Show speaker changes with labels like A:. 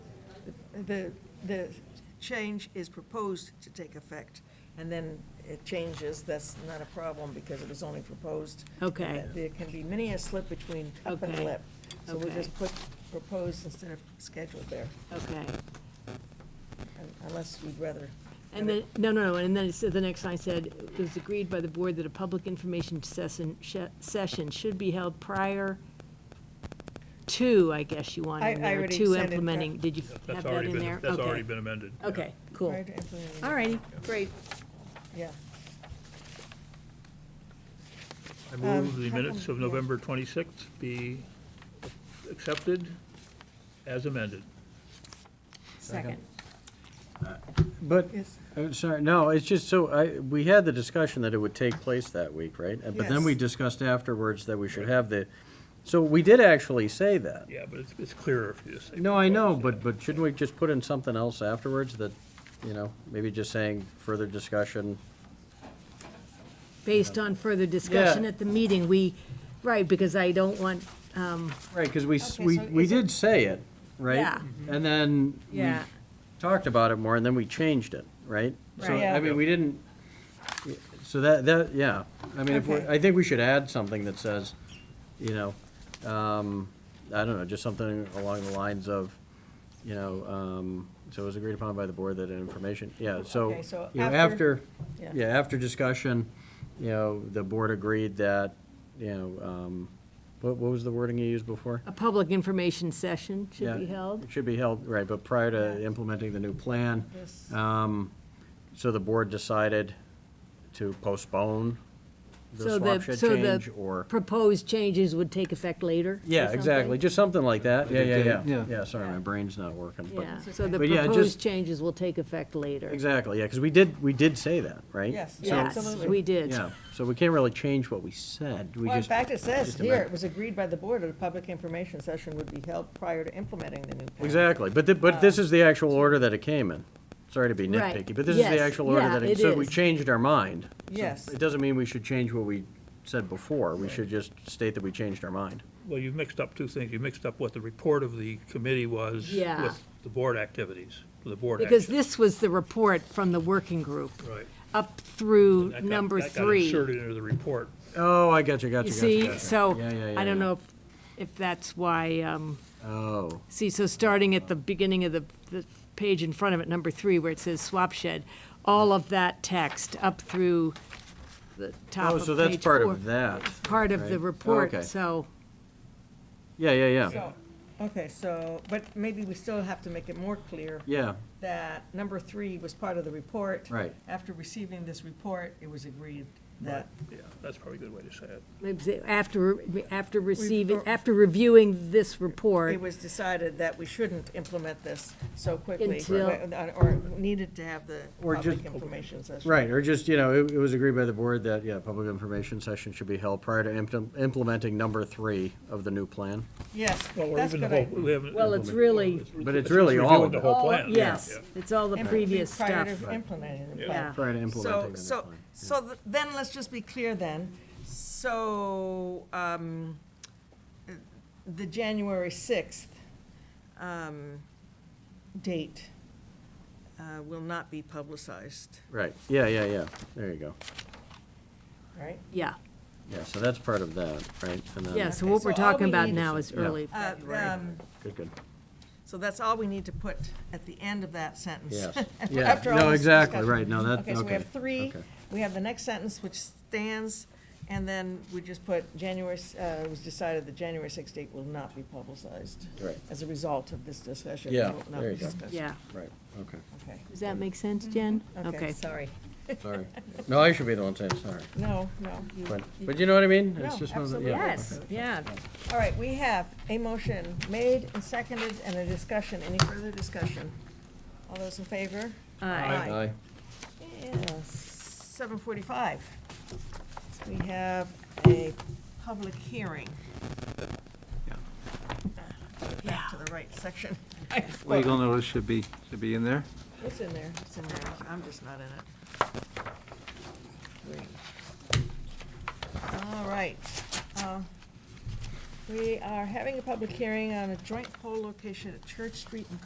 A: the, the change is proposed to take effect, and then it changes, that's not a problem, because it was only proposed. Uh,
B: Okay.
A: There can be many a slip between cup and
B: Okay.
A: lip. So we'll just
B: Okay.
A: put proposed instead of scheduled there,
B: Okay.
A: un- unless you'd rather.
B: And then, no, no, no, and then it said- the next line said, it was agreed by the board that a public information session, sh- session should be held prior to, I guess you want
A: I-
B: in
A: I
B: there,
A: already
B: to
A: said it,
B: implementing, did you have
C: That's
B: that
C: already
B: in
C: been,
B: there?
C: that's
B: Okay.
C: already been amended. yeah.
B: Okay, cool. Uh,
A: Right, implementing-
B: All righty, great.
A: Yeah.
C: I move
A: Um,
C: the
A: how come-
C: minutes of
A: yeah.
C: November 26th be accepted as amended.
B: Second.
D: But,
A: Yes.
D: I'm sorry, no, it's just so, I, we had the discussion that it would take place that week, right? Uh, But then we
A: Yes.
D: discussed afterwards that we should have the, so we did actually say that.
C: Yeah, but it's, it's clearer if you just say.
D: No, I know, but,
C: proposed,
D: but shouldn't we just put in something else afterwards that, you know, maybe just saying further discussion?
B: Based on further discussion at the meeting, we, right, because I don't want,
D: Right, because we, s-
A: Okay,
D: we,
A: so
D: we
A: is it-
D: did say it, right?
B: Yeah.
D: And then we
B: yeah,
D: talked about it more, and then we changed it, right? So,
B: Right.
D: I mean, we didn't, so that, that, yeah, I mean, if we,
A: Okay.
D: I think we should add something that says, you know, um, I don't know, just something along the lines of, you know, um, so it was agreed upon by the board that an information, yeah, so,
A: Okay, so
D: you know,
A: after-
D: after, yeah, after discussion, you know, the board agreed that, you know, um, what, what was the wording you used before?
B: a public information session should
D: Yeah,
B: be held.
D: it Should be held, right, but prior to
A: Yeah.
D: implementing the new plan,
A: Yes.
D: um, so the board decided to postpone the
B: So
D: swap shed
B: so the
D: change, or?
B: Proposed changes would take effect later? or
D: Yeah, exactly,
B: something?
D: just something like that, yeah, yeah, yeah.
E: Yeah.
D: Yeah, sorry,
A: Yeah.
D: my brain's not working, but,
B: Yeah, so the
D: But yeah, just-
B: proposed changes will take effect later.
D: exactly, yeah, because we did, we did say that, right?
A: Yes,
D: So-
A: yeah,
B: Yes,
A: absolutely.
B: we did.
D: Yeah, so we can't really change what we said, we
A: Well, in
D: just.
A: fact, it says
D: just
A: here,
D: amend-
A: it was agreed by the board that a public information session would be held prior to implementing the new plan.
D: Exactly, but, thi- but this is the actual order that it came in. Sorry to be
B: Right,
D: nitpicky, but this is the
B: yes,
D: actual order
B: yeah,
D: that it,
B: it
D: so we
B: is.
D: changed our mind. So
A: Yes.
D: It doesn't mean we should change what we said before, we should just state that we changed our mind.
C: Well, you've mixed up two things. You mixed up what the report of the committee was
B: Yeah.
C: with the board activities, the board
B: Because
C: action.
B: this was the report from the working group,
C: Right.
B: up through
C: That got-
B: number
C: that got
B: three.
C: inserted into the report.
D: Oh, I got you, got
B: You
D: you,
B: see,
D: got
B: so,
D: Yeah, yeah,
B: I
D: yeah,
B: don't
D: yeah.
B: know if, if that's why, um,
D: Oh,
B: see, so starting at the beginning of the, the page in front of it, number three, where it says swap shed, all of that text up through the top
D: oh,
B: of
D: so that's
B: page
D: part
B: four.
D: of that.
B: Part of the
D: right? Oh,
B: report,
D: okay.
B: so,
D: Yeah, yeah, yeah,
A: So, okay, so, but maybe we still have to make it more clear
D: yeah,
A: that number three was part of the report.
D: Right.
A: After receiving this report, it was agreed that,
C: Yeah, that's probably a good way to say it.
B: maybe say after, after receiving, after reviewing this report.
A: it was decided that we shouldn't implement this so quickly.
B: Until-
A: Or or needed to have the
D: Or
A: public
D: just-
A: information session.
D: right, or just, you know, it, it was agreed by the board that, yeah, public information session should be held prior to impl- implementing number three of the new plan.
A: Yes,
C: Well, or
A: that's
C: even the
A: good.
C: whole- we haven't
B: Well, it's
C: implemented-
B: really-
D: But it's really all
C: reviewing
D: of
C: The
D: it.
C: whole
B: All-
C: plan.
B: Yes,
C: Yeah.
B: it's all the
A: Implement-
B: previous
A: prior
B: stuff,
A: to implementing the plan.
B: yeah.
D: Prior to
A: So,
D: implementing the new
A: so,
D: plan.
A: so th- then, let's just be clear then. So, um, the January 6th um, date uh, will not be publicized,
D: Right, yeah, yeah, yeah, there you go.
A: right?
B: Yeah,
D: Yeah, so that's part of that, right? And then-
B: yeah, so
A: Okay,
B: what
A: so
B: we're
A: all
B: talking
A: we
B: about
A: need-
B: now is
D: Yeah.
B: early
A: Uh,
B: February.
A: um,
D: Good, good.
A: So that's all we need to put at the end of that sentence.
D: Yes.
A: After
D: Yeah.
A: all
D: No,
A: this
D: exactly,
A: discussion.
D: right. No, that-
A: so we
D: okay,
A: have three,
D: okay.
A: we have the next sentence, which stands, and then we just put January, s- uh, it was decided the January sixth date will not be publicized.
D: Right.
A: As a result of this discussion. it
D: Yeah,
A: will not
D: there
A: be
D: you go.
A: discussed.
B: Yeah,
D: Right, okay,
A: Okay,
B: does that make sense, Jen?
A: Mm-hmm. okay, sorry.
D: sorry. No, I should be the one saying sorry.
A: No, no. you-
D: But, but you know what I mean? It's
A: No,
D: just one of the-
A: absolutely.
D: yeah,
B: Yes,
D: okay.
B: yeah,
A: All right, we have a motion made and seconded and a discussion. Any further discussion? All those in favor?
B: aye.
D: Aye.
A: Seven forty-five. We have a public hearing. Back to the right section.
E: Legal notice should be, should be in there.
A: It's in there, it's in there, I'm just not in it. Great. All right. uh, We are having a public hearing on a joint poll location at Church Street and